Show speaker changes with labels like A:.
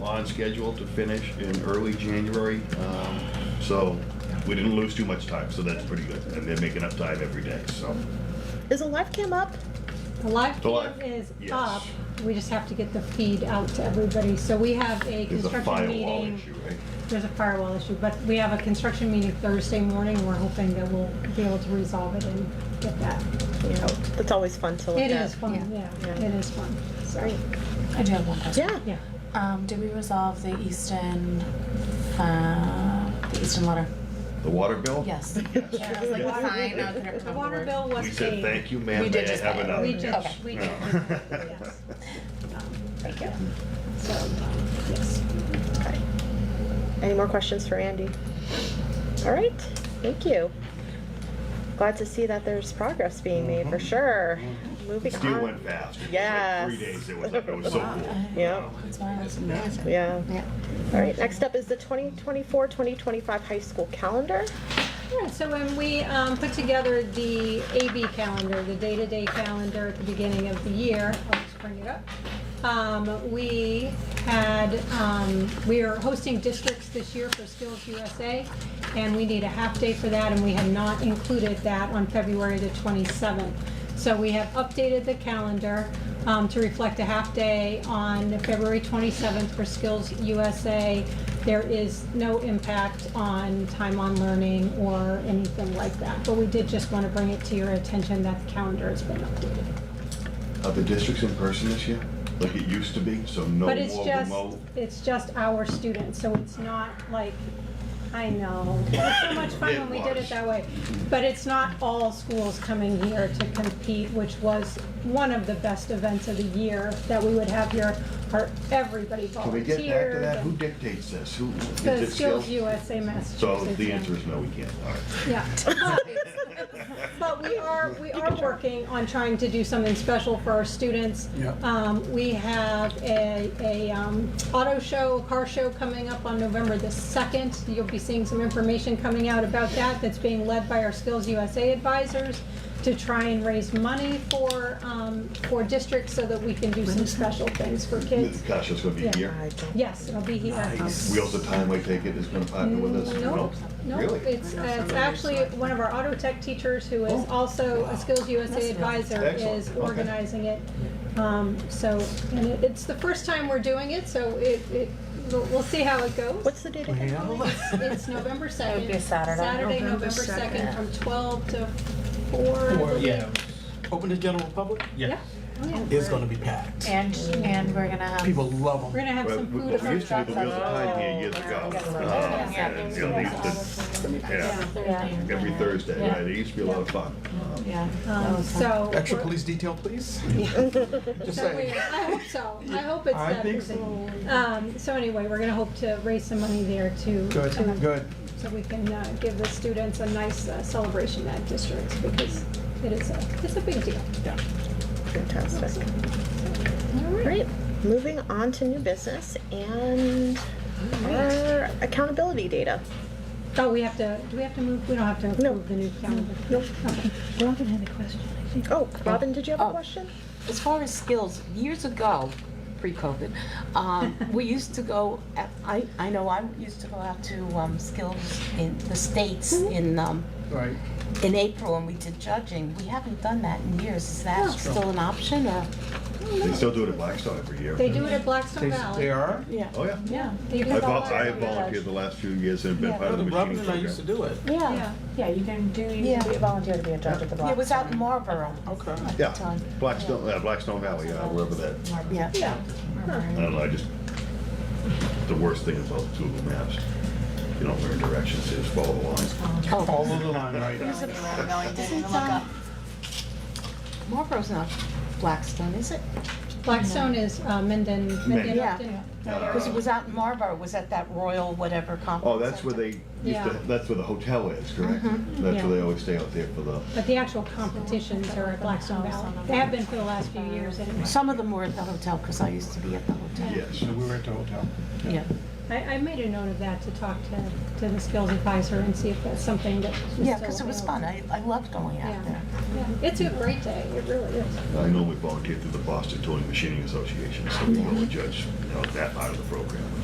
A: on schedule to finish in early January. Um, So we didn't lose too much time, so that's pretty good. And they're making up time every day, so.
B: Is a live cam up?
C: The live
A: The live-
C: cam is
A: yes.
C: up, we just have to get the feed out to everybody, so we have a
A: There's a
C: construction
A: firewall
C: meeting.
A: issue, right?
C: There's a firewall issue, but we have a construction meeting Thursday morning, we're hoping that we'll be able to resolve it and get that.
B: Yeah, Oh, that's always fun to look at.
C: It is fun, yeah,
B: Yeah.
C: it is fun, so,
B: Great.
D: I do have one question.
B: Yeah.
C: yeah.
D: Um, did we resolve the Easton, uh, the Easton letter?
A: The water bill?
D: Yes.
B: Yeah,
D: I was like,
A: Yeah.
D: the sign, I couldn't
C: The
D: remember the
C: water
D: word.
C: bill was
A: We said,
C: paid.
A: thank you, ma'am,
D: We
A: may
D: did
A: I
D: just
A: have
D: pay it.
A: another?
C: We
D: Okay.
C: did, we did,
A: No.
C: yes,
D: Thank you.
C: so, um, yes.
B: Okay. Any more questions for Andy? All right, thank you. Glad to see that there's progress being made, for sure. Moving
A: Still
B: on.
A: went fast. It was like
B: Yes.
A: Three days, it was, it was so
D: Wow.
A: cool.
B: Yeah.
D: That's why.
B: Yeah.
D: Yeah.
B: All right, next up is the 2024-2025 high school calendar.
C: Yeah, so when we um, put together the AB calendar, the day-to-day calendar at the beginning of the year, I'll just bring it up. um, We had, um, we are hosting districts this year for Skills USA, and we need a half-day for that, and we had not included that on February the 27th. So we have updated the calendar um, to reflect a half-day on February 27th for Skills USA. There is no impact on time on learning or anything like that, but we did just want to bring it to your attention that the calendar has been updated.
A: Are the districts in person this year? Like it used to be, so no more
C: But it's just,
A: remote?
C: it's just our students, so it's not like, I know, it was so much fun when we did it that way. But it's not all schools coming here to compete, which was one of the best events of the year that we would have here, for everybody
A: Can we get back to
C: volunteered.
A: that? Who
C: and
A: dictates this? Who, is
C: The
A: it
C: Skills
A: still?
C: USA Massachusetts.
A: So the
C: yeah.
A: answer is no, we can't, all right.
C: Yeah. But we are, we are working on trying to do something special for our students.
E: Yeah.
C: Um, we have a, a, um, auto show, car show coming up on November the second. You'll be seeing some information coming out about that, that's being led by our Skills USA advisors to try and raise money for, um, for districts so that we can do some special things for kids.
A: Gosh, it's gonna be
C: Yeah.
A: here.
C: Yes, it'll be here.
A: Wheels of Time, I take it, is gonna partner with us?
C: Nope, nope,
A: Really?
C: it's, uh, it's actually one of our auto tech teachers who is
A: Oh.
C: also a Skills USA advisor
A: Excellent.
C: is
A: Okay.
C: organizing it. Um, so, and it, it's the first time we're doing it, so it, it, we'll, we'll see how it goes.
B: What's the date again?
C: It's- It's November second.
D: be Saturday.
C: Saturday, November second, from twelve to four. I believe.
F: Yeah,
E: Open to general public
C: Yeah.
F: yeah.
C: Oh, yeah.
E: is gonna be packed.
D: And, and we're gonna have.
E: People love
C: We're
E: them.
C: gonna have
A: Well,
C: some
A: we-
C: food.
A: well, we used to do the Wheels of Time here years ago. Uh, and, you know, they used to- Yeah,
D: Yeah.
A: every Thursday, right, it used to be a lot of fun. Um,
D: Yeah.
C: Um, so.
E: Extra
C: we're-
E: police detail, please? Just
C: So we-
E: saying.
C: I hope so. I hope it's
E: I
C: that
E: think
C: busy.
E: so.
C: Um, so anyway, we're gonna hope to raise some money there to.
E: Good,
C: to-
E: good.
C: So we can, uh, give the students a nice uh, celebration at districts because it is a, it's a big deal.
B: Fantastic. Great. Moving on to new business and our accountability data.
C: Oh, we have to, do we have to move? We don't have to
B: No.
C: approve the new calendar.
B: Nope.
C: Okay.
B: Robin had a question, I think. Oh, Robin, did you have a
G: Oh.
B: question?
G: As far as skills, years ago, pre-COVID, um, we used to go, at- I, I know I used to go out to um, skills in the states in, um,
E: Right.
G: in April and we did judging. We haven't done that in years. Is that still an option or?
A: They still do it at Blackstone every year.
C: They do it at Blackstone
E: They, they
C: Valley.
E: are?
G: Yeah.
A: Oh, yeah.
G: Yeah.
C: They do
A: I
C: it
A: vol-
C: all
A: I have
C: around.
A: volunteered the last few years and been part of the
E: Robin
A: machine
E: and I used to
A: program.
E: do it.
C: Yeah.
D: Yeah, you can do, you
G: Yeah.
D: can be a volunteer to be a judge at the block.
G: It was out in Marlboro.
E: Okay.
G: at the
A: Yeah,
G: time.
A: Blackstone, uh, Blackstone Valley, uh, wherever that,
G: Yeah.
C: Yeah.
A: I don't know, I just, the worst thing about Google Maps, you don't learn directions, you just follow the lines.
G: Oh,
E: Follow the line right now.
G: Marlboro's not Blackstone, is it?
C: Blackstone is, uh, Menden, Menden
A: Menden.
C: Upton.
G: Yeah. Because it was out in Marlboro, it was at that Royal whatever conference.
A: Oh, that's where they, used
C: Yeah. Mm-hmm.
A: to- that's where the hotel is, correct? That's
C: Yeah.
A: where they always stay out there for the,
C: But the actual competitions are at Blackstone Valley. They have been for the last few years anyway.
G: Some of them were at the hotel because I used to be at the hotel.
A: yes.
E: So we were at the hotel.
G: Yeah.
C: I, I made a note of that to talk to, to the skills advisor and see if that's something that. was
G: Yeah,
C: still
G: because it was fun.
C: available.
G: I, I loved going
C: Yeah.
G: out there.
C: Yeah, It's a great day, it really is.
A: I normally volunteer through the Boston Towing Machining Association, so we go and judge, you know, that part of the program.